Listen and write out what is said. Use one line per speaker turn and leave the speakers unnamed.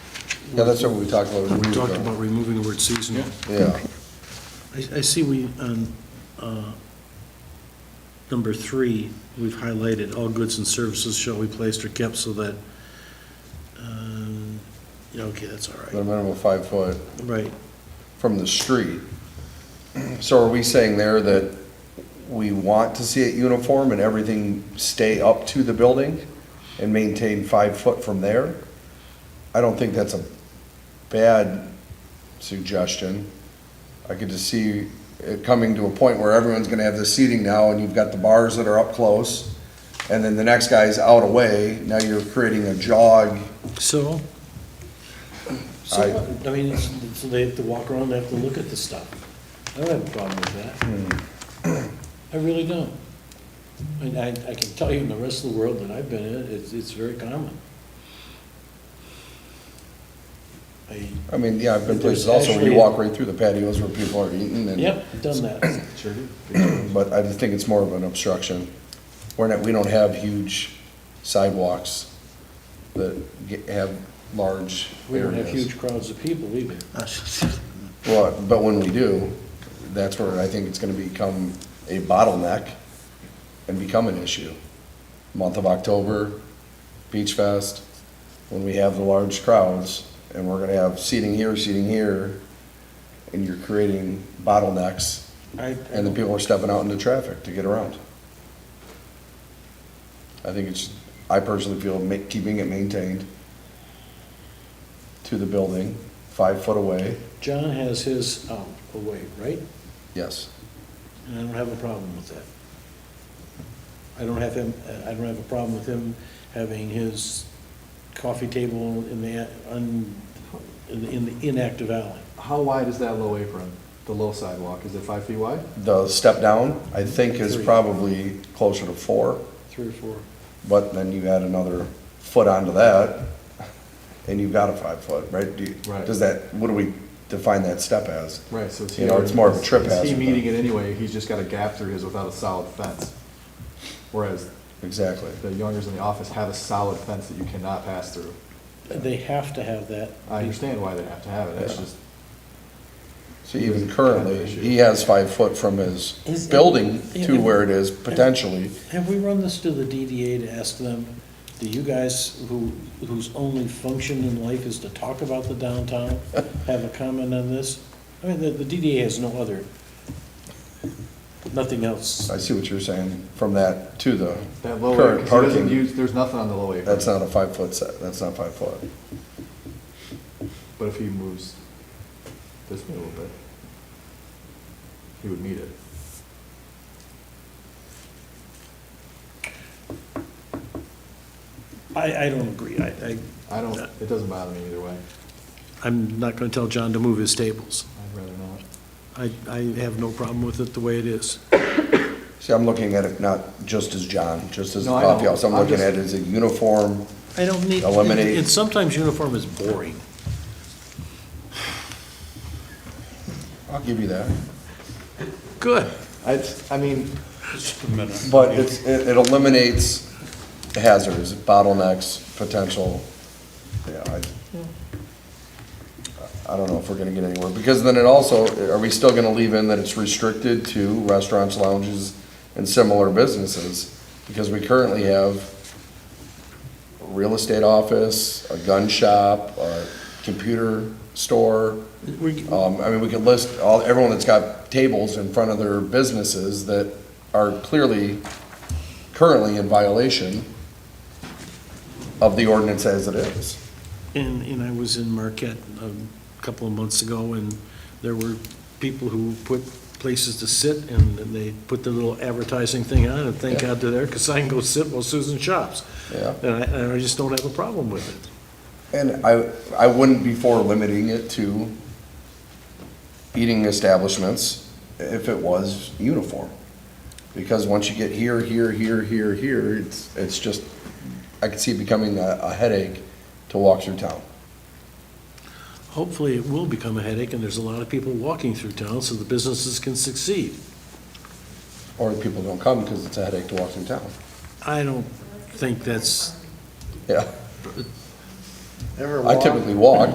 Yeah, that's what we talked about a
We
week
talked
ago.
about removing the word seasonal.
Yeah,
I, I see we, on, uh, number three, we've highlighted, all goods and services shall be placed or kept so that, um, yeah, okay, that's all
at a
right.
minimum of five foot
Right,
from the street. So are we saying there that we want to see it uniform and everything stay up to the building and maintain five foot from there? I don't think that's a bad suggestion. I could just see it coming to a point where everyone's gonna have the seating now, and you've got the bars that are up close, and then the next guy's out away, now you're creating a jog.
so? So,
I-
what? I mean, it's- so they have to walk around, they have to look at the stuff. I don't have a problem with that. I really don't. And I, I can tell you in the rest of the world that I've been in, it's, it's very common. I,
I mean, yeah, I've been
There's
places also where you
actually-
walk right through the patios where people are eating and.
Yep, done that.
Sure do.
But I just think it's more of an obstruction. We're not, we don't have huge sidewalks that ge- have large
We don't have
areas.
huge crowds of people either.
Well, but when we do, that's where I think it's gonna become a bottleneck and become an issue. Month of October, Beach Fest, when we have the large crowds, and we're gonna have seating here, seating here, and you're creating bottlenecks,
I,
and the people are stepping out into traffic to get around. I think it's, I personally feel ma- keeping it maintained to the building, five foot away,
John has his out away, right?
yes.
And I don't have a problem with that. I don't have him, uh, I don't have a problem with him having his coffee table in the, un- in the- in the inactive alley.
How wide is that low apron, the low sidewalk? Is it five feet wide?
The step down,
Mm-hmm.
I think, is
Three.
probably closer to four,
Three or four.
but then you add another foot onto that, and you've got a five foot, right? Do you-
Right.
Does that, what do we define that step as?
Right, so it's.
You know, it's more of a trip
Is he
hazard
meeting
then.
it anyway? He's just got a gap through his without a solid fence. Whereas
Exactly.
the youngers in the office have a solid fence that you cannot pass through.
They have to have that.
I understand why they have to have it. It's
Yeah.
just,
So even
Kind
currently,
of issue.
he has five foot from his
Is-
building
yeah,
to
yeah.
where it is potentially.
Have we run this to the DDA to ask them, do you guys who, whose only function in life is to talk about the downtown, have a comment on this? I mean, the, the DDA has no other, nothing else.
I see what you're saying, from that to the
that low apron,
current
'cause he doesn't
parking,
use, there's nothing on the low apron.
that's not a five foot set, that's not five foot.
But if he moves this way a little bit, he would meet it.
I, I don't agree. I, I,
I don't, it doesn't bother me either way.
I'm not gonna tell John to move his tables.
I'd rather not.
I, I have no problem with it the way it is.
See, I'm looking at it not just as John, just as the
No, I know.
coffee house, I'm
I'm
looking
just-
at it as a uniform,
I don't need.
Eliminate.
And sometimes uniform is boring.
I'll give you that.
Good.
I, I mean,
But it's, it it eliminates hazards, bottlenecks, potential, yeah, I, I don't know if we're gonna get anywhere, because then it also, are we still gonna leave in that it's restricted to restaurants, lounges, and similar businesses? Because we currently have a real estate office, a gun shop, a computer store.
We-
Um, I mean, we could list all, everyone that's got tables in front of their businesses that are clearly, currently in violation of the ordinance as it is.
And, and I was in Marquette a couple of months ago, and there were people who put places to sit, and then they put their little advertising thing on, and thank
Yeah.
God they're there, because I can go sit while Susan shops.
Yeah.
And I, and I just don't have a problem with it.
And I, I wouldn't be for limiting it to eating establishments if it was uniform. Because once you get here, here, here, here, here, it's, it's just, I could see it becoming a, a headache to walk through town.
Hopefully, it will become a headache, and there's a lot of people walking through town, so the businesses can succeed.
Or people don't come because it's a headache to walk through town.
I don't think that's
Yeah.
Ever
I
walk?
typically walk.